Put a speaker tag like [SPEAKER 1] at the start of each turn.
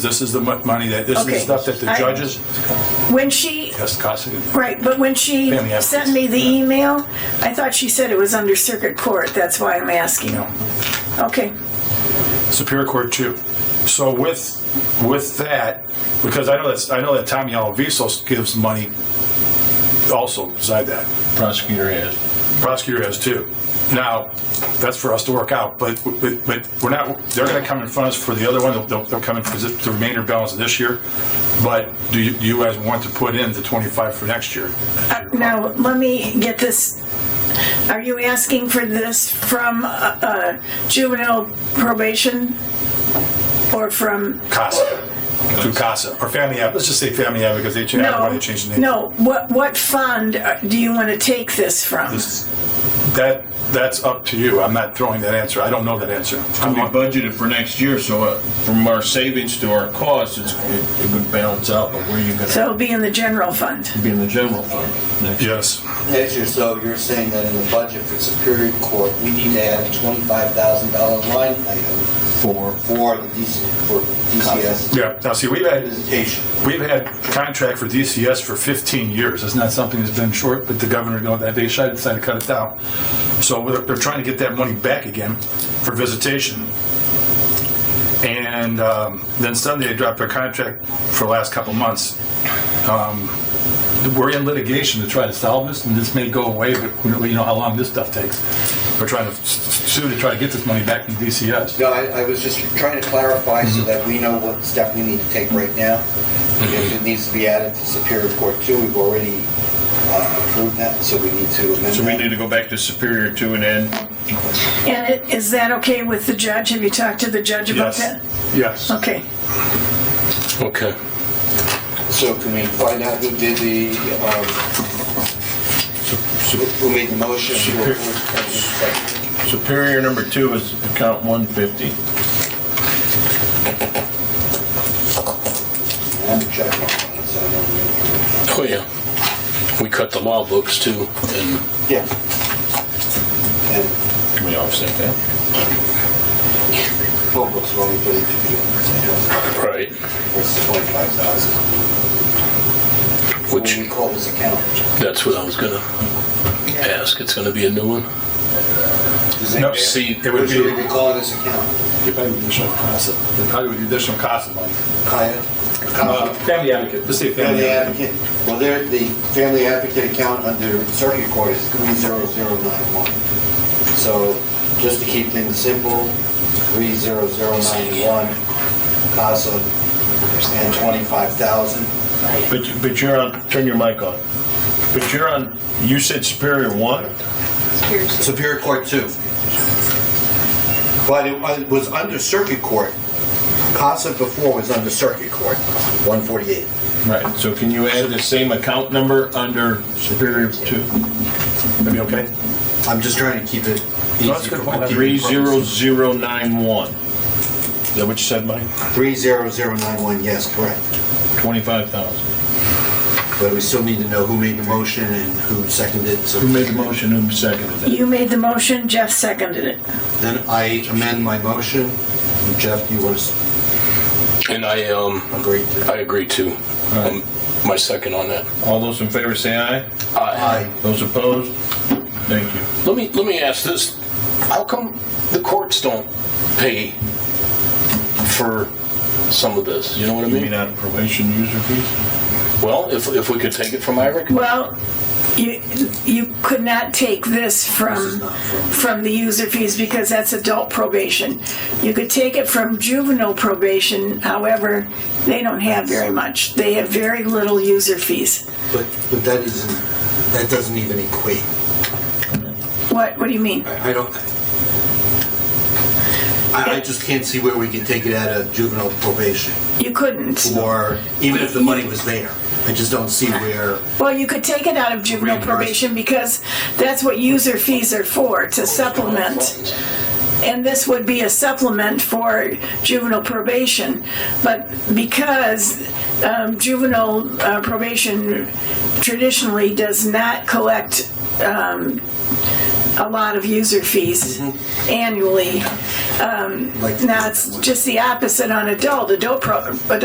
[SPEAKER 1] This is the mon- money that, this is the
[SPEAKER 2] Okay.
[SPEAKER 1] stuff that the
[SPEAKER 2] I-
[SPEAKER 1] judges,
[SPEAKER 2] When she,
[SPEAKER 1] yes, Costa,
[SPEAKER 2] right, but when she
[SPEAKER 1] Family assets.
[SPEAKER 2] sent me the email, I thought she said it was under circuit court. That's why I'm asking. Okay,
[SPEAKER 1] Superior Court too. So with, with that, because I know that's, I know that Tommy Alvisos gives money also beside that.
[SPEAKER 3] prosecutor has.
[SPEAKER 1] Prosecutor has too. Now, that's for us to work out, but, but, but we're not, they're gonna come in front of us for the other one, they'll, they'll come in for the remainder balance of this year. But do you, do you guys want to put in the twenty-five for next year?
[SPEAKER 2] Uh, now let me get this. Are you asking for this from uh, uh, juvenile probation? Or from,
[SPEAKER 1] CASA, through CASA, or family app, let's just say family app, because they changed,
[SPEAKER 2] no,
[SPEAKER 1] they changed the name.
[SPEAKER 2] no, what, what fund uh, do you want to take this from?
[SPEAKER 1] That, that's up to you, I'm not throwing that answer, I don't know that answer.
[SPEAKER 3] It'll be budgeted for next year, so uh, from our savings to our costs, it's, it it would balance out, but where are you
[SPEAKER 2] So
[SPEAKER 3] gonna
[SPEAKER 2] it'll be in the general fund.
[SPEAKER 3] be in the general fund next year?
[SPEAKER 1] Yes,
[SPEAKER 4] Next year, so you're saying that in the budget for Superior Court, we need to add a twenty-five thousand dollar line item
[SPEAKER 3] For,
[SPEAKER 4] for the DC, for DCS
[SPEAKER 1] yeah, now see, we've had,
[SPEAKER 4] visitation.
[SPEAKER 1] We've had contract for DCS for 15 years. It's not something that's been short, but the governor, you know, they decided to cut it down. So they're- they're trying to get that money back again for visitation. And um, then suddenly they dropped their contract for the last couple months. Um, We're in litigation to try to solve this, and this may go away, but we don't- you know how long this stuff takes. We're trying to sue to try to get this money back from DCS.
[SPEAKER 4] No, I, I was just trying to clarify so that we know what step we need to take right now. If it needs to be added to Superior Court too, we've already uh, approved that, so we need to amend
[SPEAKER 3] so we need
[SPEAKER 4] that.
[SPEAKER 3] to go back to Superior Two and add
[SPEAKER 2] And it- is that okay with the judge? Have you talked to the judge about
[SPEAKER 1] Yes,
[SPEAKER 2] that?
[SPEAKER 1] yes.
[SPEAKER 2] Okay.
[SPEAKER 5] Okay.
[SPEAKER 4] So can we find out who did the, um, who who made the motion? to approve?
[SPEAKER 3] Superior number two is account one fifty.
[SPEAKER 4] I'm checking on it, so I don't-
[SPEAKER 5] Oh, yeah. We cut the law books too, and
[SPEAKER 4] Yeah. And
[SPEAKER 3] Can we offset that?
[SPEAKER 4] full books were only thirty-two people.
[SPEAKER 5] right,
[SPEAKER 4] Versus twenty-five thousand.
[SPEAKER 5] Which-
[SPEAKER 4] We call this account.
[SPEAKER 5] that's what I was gonna ask. It's gonna be a new one.
[SPEAKER 4] Does
[SPEAKER 1] No,
[SPEAKER 4] anybody-
[SPEAKER 1] see, it
[SPEAKER 4] What
[SPEAKER 1] would
[SPEAKER 4] should we
[SPEAKER 1] be,
[SPEAKER 4] be calling this account?
[SPEAKER 1] it probably would be additional cost of money.
[SPEAKER 4] Kaya?
[SPEAKER 1] Uh, Family advocate, let's say
[SPEAKER 4] Family
[SPEAKER 1] family advocate.
[SPEAKER 4] advocate, well, there, the family advocate account under circuit court is three zero zero nine one. So, just to keep things simple, three zero zero nine one, CASA, and twenty-five thousand.
[SPEAKER 3] But, but you're on, turn your mic on. But you're on, you said Superior One?
[SPEAKER 4] Superior Court too. But it wa- it was under circuit court. CASA before was under circuit court, 148.
[SPEAKER 3] Right, so can you add the same account number under Superior Two?
[SPEAKER 1] That'd be okay?
[SPEAKER 4] I'm just trying to keep
[SPEAKER 1] No,
[SPEAKER 4] it
[SPEAKER 1] that's
[SPEAKER 4] easy
[SPEAKER 1] a good
[SPEAKER 4] for
[SPEAKER 1] point.
[SPEAKER 4] bookkeeping
[SPEAKER 3] Three zero
[SPEAKER 4] purposes.
[SPEAKER 3] zero nine one. Is that what you said, Mike?
[SPEAKER 4] 30091, yes, correct.
[SPEAKER 3] Twenty-five thousand.
[SPEAKER 4] But we still need to know who made the motion and who seconded it. so-
[SPEAKER 3] Who made the motion, who seconded it?
[SPEAKER 2] You made the motion, Jeff seconded it.
[SPEAKER 4] Then I amend my motion. And Jeff, you want to
[SPEAKER 5] And I, um,
[SPEAKER 4] agree to?
[SPEAKER 5] I agree too. Um, my second on that.
[SPEAKER 3] All those in favor say aye.
[SPEAKER 5] Aye.
[SPEAKER 3] Those opposed? Thank you.
[SPEAKER 5] Let me, let me ask this. How come the courts don't pay for some of this? You know what I
[SPEAKER 3] You mean
[SPEAKER 5] mean?
[SPEAKER 3] out of probation user fees?
[SPEAKER 5] Well, if, if we could take it from Ira,
[SPEAKER 2] Well, you, you could not take this
[SPEAKER 4] This is
[SPEAKER 2] from,
[SPEAKER 4] not from-
[SPEAKER 2] from the user fees because that's adult probation. You could take it from juvenile probation, however, they don't have very much. They have very little user fees.
[SPEAKER 4] But but that isn't, that doesn't even equate.
[SPEAKER 2] What, what do you mean?
[SPEAKER 4] I I don't, I, I just can't see where we can take it out of juvenile probation,
[SPEAKER 2] You couldn't.
[SPEAKER 4] or even if the money was there. I just don't see where,
[SPEAKER 2] Well, you could take it out of juvenile
[SPEAKER 4] Reimburse.
[SPEAKER 2] probation because that's what user fees are for, to supplement. And this would be a supplement for juvenile probation. But because um, juvenile uh, probation traditionally does not collect um, a lot of user fees annually,
[SPEAKER 4] Like-
[SPEAKER 2] Now, it's just the opposite on adult. Adult, pro- adult